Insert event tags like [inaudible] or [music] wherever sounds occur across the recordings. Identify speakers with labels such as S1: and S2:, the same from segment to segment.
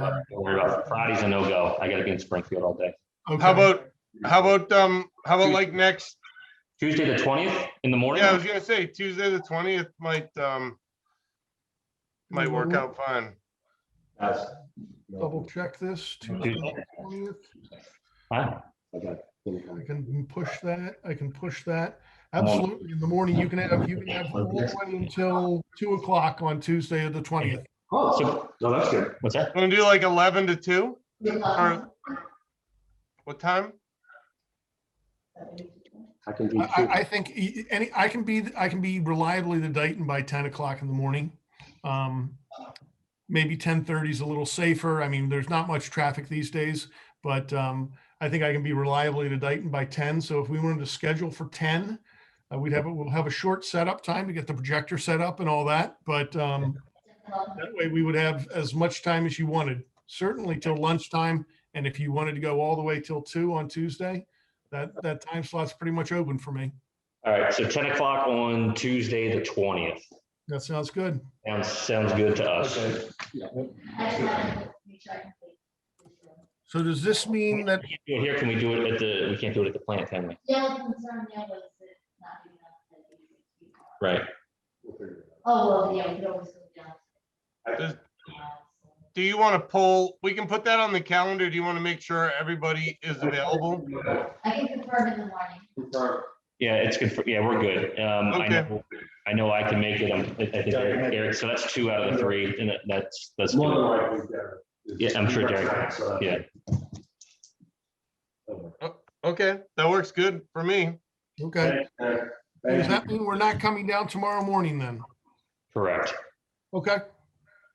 S1: Don't worry about it. Friday's a no-go. I gotta be in Springfield all day.
S2: How
S3: Okay.
S2: about, how about, um, how about like next,
S1: Tuesday, the twentieth in the morning?
S2: yeah, I was gonna say Tuesday, the twentieth might, um, might
S3: Mm-hmm.
S2: work out fine.
S4: Yes.
S3: Double check this. Tuesday, the 20th.
S1: Huh?
S4: Okay.
S3: I can push that. I can push that. Absolutely. In the morning, you can have, you can have all the way until two o'clock on Tuesday of the twentieth.
S4: Oh,
S1: So-
S4: no, that's good.
S1: What's that?
S2: Gonna do like eleven to two? Or What time?
S4: I can do.
S3: I, I, I think e- any, I can be, I can be reliably the Dayton by ten o'clock in the morning. Um, Maybe ten thirty is a little safer. I mean, there's not much traffic these days, but um, I think I can be reliably to Dayton by ten. So if we wanted to schedule for ten, uh, we'd have, a- we'll have a short setup time to get the projector set up and all that, but um, that way we would have as much time as you wanted, certainly till lunchtime. And if you wanted to go all the way till two on Tuesday, that, that time slot's pretty much open for me.
S1: All right, so ten o'clock on Tuesday, the twentieth.
S3: That sounds good.
S1: Sounds, sounds good to us.
S4: Okay. Yeah.
S3: So does this mean that,
S1: We can't do it Here, can we do it at the, we can't do it at the plant, can we?
S5: The only concern there was it not being enough. that we could keep on.
S1: Right.
S4: We'll figure it
S5: Oh, well, yeah, we could always go down.
S2: Does-
S5: to the house.
S2: Do you wanna pull, we can put that on the calendar. Do you wanna make sure everybody is available?
S4: out.
S5: I can confirm in the morning.
S4: Confirm.
S1: Yeah, it's good for, yeah, we're good. Um, I
S2: Okay.
S1: know, I know I can make it. I'm- I I think Eric, Eric- so that's two out of the three, and that- that's, that's.
S4: More than
S1: good.
S4: likely, Derek.
S1: Yeah, I'm sure Derek-
S4: So that's-
S1: Yeah,
S2: Okay, that works good for me.
S3: okay,
S4: Thank
S3: does
S4: you.
S3: that mean we're not coming down tomorrow morning then?
S1: correct.
S3: Okay,
S1: I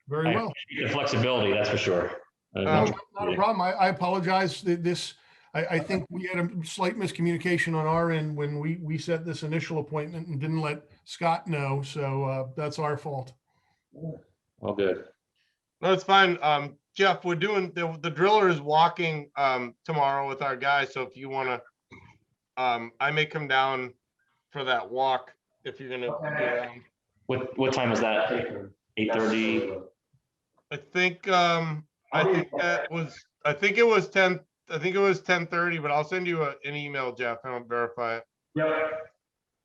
S3: very well.
S1: appreciate The flexibility, that's for sure. Uh,
S2: Um,
S1: no-
S3: Not a problem. I, I apologize that this, I, I think we had a slight miscommunication on our end when we, we set this initial appointment and didn't let Scott know. So uh, that's our fault.
S1: All good.
S2: No, it's fine. Um, Jeff, we're doing, the, the driller is walking, um, tomorrow with our guys, so if you wanna, um, I may come down for that walk if you're gonna. be around.
S1: What, what time is that? Eight thirty?
S2: I think, um, I
S4: I'll be-
S2: think that was, I think it was ten, I think it was ten thirty, but I'll send you a, an email, Jeff, and I'll verify it.
S4: Yep,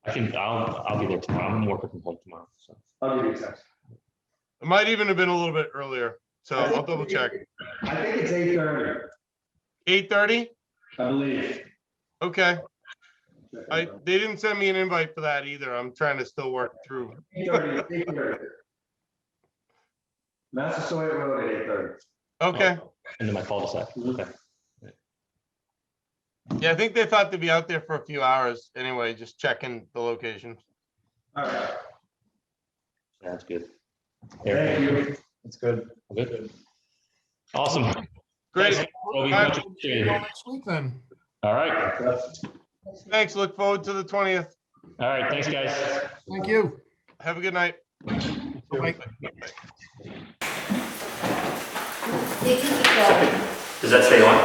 S1: I can, I'll, I'll be there tomorrow. I'm working from home tomorrow, so.
S4: I'll give you a text.
S2: It might even have been a little bit earlier, so
S4: I think-
S2: I'll double check.
S4: I think it's eight thirty,
S2: Eight thirty?
S4: I believe.
S2: Okay, I, they didn't send me an invite for that either. I'm trying to still work through.
S4: Eight thirty, eight thirty. Massasoit Road at eight thirty.
S2: Okay,
S1: Into my cul-de-sac.
S4: Mm-hmm.
S1: Okay.
S4: Oh.
S2: yeah, I think they thought they'd be out there for a few hours anyway, just checking the location.
S4: All right,
S1: Sounds good.
S4: thank
S1: Eric,
S4: you. That's good.
S1: all good? Awesome.
S2: Great,
S1: Thanks, Toby.
S2: Bye.
S1: Much appreciated.
S3: Well, Next week then.
S1: All right,
S4: Thanks,
S2: thanks. Look forward to the twentieth.
S1: all right. Thanks, guys.
S3: Thank you.
S2: Have a good night.
S3: Bye.
S5: It can keep going.
S6: Does that stay on?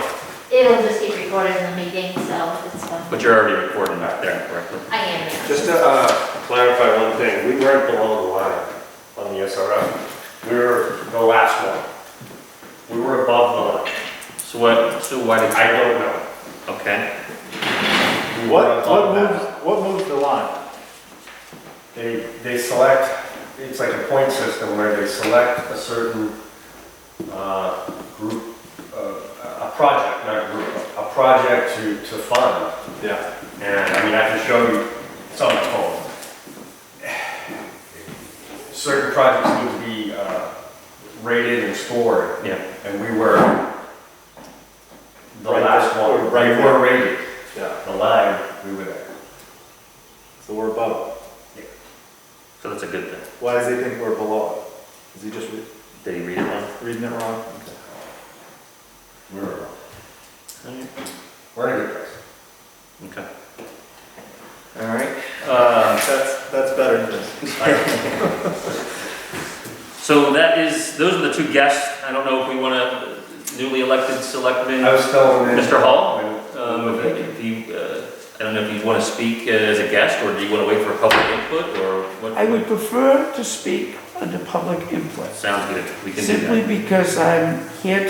S5: It'll just get recorded in the meeting, so it's fine.
S6: But you're already recording back there, correctly?
S5: I am, yeah.
S7: Just to uh, clarify one thing, we weren't below the line on the SRF. We were the last one. We were above the line.
S6: So what, so why did,
S7: I don't know.
S6: okay,
S7: We were
S8: What, what
S7: above that.
S8: moves, what moves the line?
S7: They, they select, it's like a point system where they select a certain uh, group, uh, a project, not group, a project to, to fund.
S8: Yeah.
S7: And I mean, I can show you some at home. Certain projects need to be uh, rated and scored,
S6: yeah,
S7: and we were the
S8: Right
S7: last
S8: there,
S7: one.
S8: right
S7: We
S8: there.
S7: were rated,
S8: Yeah.
S7: the line, we were there.
S8: So we're above.
S6: so that's a good thing.
S8: Why does he think we're below? Is he just re-
S6: Did he read it wrong?
S8: reading it wrong?
S7: We were,
S6: Alright,
S7: we're in a good place.
S6: Okay. All right, uh,
S8: That's, that's better than this.
S6: [laughs] so that is, those are the two guests. I don't know if we want to, newly elected selectman,
S7: I was telling them.
S6: Mr. Hall? Um,
S7: Um,
S6: if if you, uh, I don't know if you want to speak uh, as a guest, or do you want to wait for public input, or what?
S9: I would prefer to speak under public input,
S6: Sounds good, we can do that.
S9: simply because I'm here